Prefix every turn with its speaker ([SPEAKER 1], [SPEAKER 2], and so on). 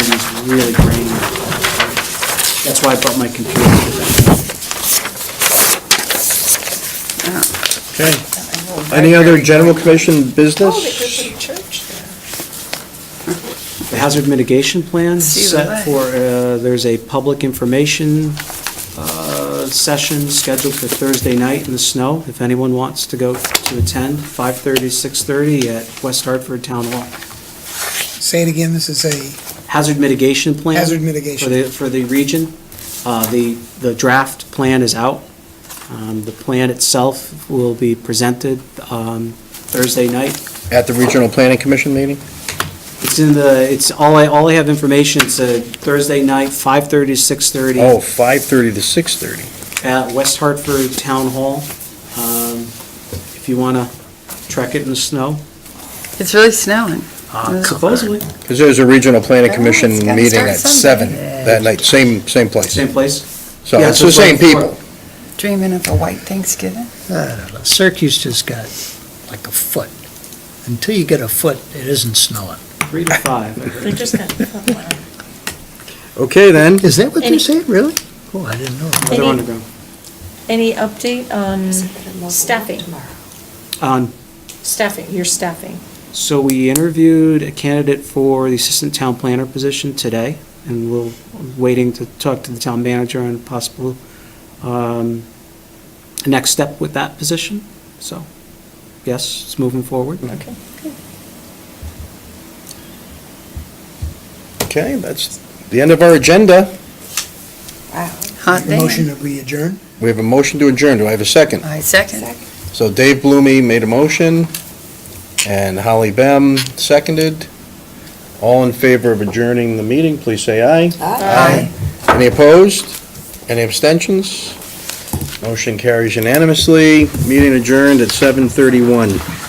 [SPEAKER 1] is really grainy. That's why I brought my computer. with me.
[SPEAKER 2] Okay. Any other general commission business?
[SPEAKER 3] to church there.
[SPEAKER 1] The hazard mitigation plan
[SPEAKER 3] See the
[SPEAKER 1] set
[SPEAKER 3] light.
[SPEAKER 1] for, uh, there's a public information uh, session scheduled for Thursday night in the snow, if anyone wants to go to attend, 5:30, 6:30 at West Hartford Town Hall.
[SPEAKER 4] Say it again, this is a
[SPEAKER 1] Hazard mitigation plan.
[SPEAKER 4] hazard
[SPEAKER 1] for
[SPEAKER 4] mitigation.
[SPEAKER 1] the, for the region. Uh, The, the draft plan is out. Um, The plan itself will be presented um, Thursday night.
[SPEAKER 2] At the Regional Planning Commission meeting?
[SPEAKER 1] It's in the, it's, all I, all I have information, it's uh, Thursday night, 5:30 to 6:30
[SPEAKER 2] Oh, 5:30 to 6:30.
[SPEAKER 1] at West Hartford Town Hall. Um, If you want to trek it in the snow,
[SPEAKER 3] It's really snowing.
[SPEAKER 1] uh, supposedly,
[SPEAKER 2] Because there's a Regional Planning Commission
[SPEAKER 3] it's gotta
[SPEAKER 2] meeting
[SPEAKER 3] start
[SPEAKER 2] at
[SPEAKER 3] Sunday.
[SPEAKER 2] 7 that night, same, same place.
[SPEAKER 1] same place.
[SPEAKER 2] So
[SPEAKER 1] Yeah,
[SPEAKER 2] it's
[SPEAKER 1] so
[SPEAKER 2] the
[SPEAKER 1] it's like
[SPEAKER 2] same people.
[SPEAKER 3] Dreaming of a white Thanksgiving.
[SPEAKER 5] I don't know. Syracuse just got like a foot. Until you get a foot, it isn't snowing.
[SPEAKER 1] Three to five. I heard.
[SPEAKER 6] They just got, they
[SPEAKER 2] Okay, then.
[SPEAKER 5] Is that what
[SPEAKER 6] Any-
[SPEAKER 5] they're saying, really? Oh, I didn't know.
[SPEAKER 1] They're
[SPEAKER 6] need-
[SPEAKER 1] underground.
[SPEAKER 6] Any update on staffing,
[SPEAKER 1] Um,
[SPEAKER 6] staffing, your staffing?
[SPEAKER 1] So we interviewed a candidate for the assistant town planner position today, and we're waiting to talk to the town manager on possible um, next step with that position. So, yes, it's moving forward.
[SPEAKER 6] Okay.
[SPEAKER 2] Okay, that's the end of our agenda.
[SPEAKER 3] Hot day.
[SPEAKER 4] Motion that we adjourn?
[SPEAKER 2] We have a motion to adjourn. Do I have a second?
[SPEAKER 3] I second.
[SPEAKER 2] So Dave Blumey made a motion, and Holly Bem seconded. All in favor of adjourning the meeting, please say aye.
[SPEAKER 3] Aye.
[SPEAKER 2] Any opposed? Any abstentions? Motion carries unanimously. Meeting adjourned at 7:31.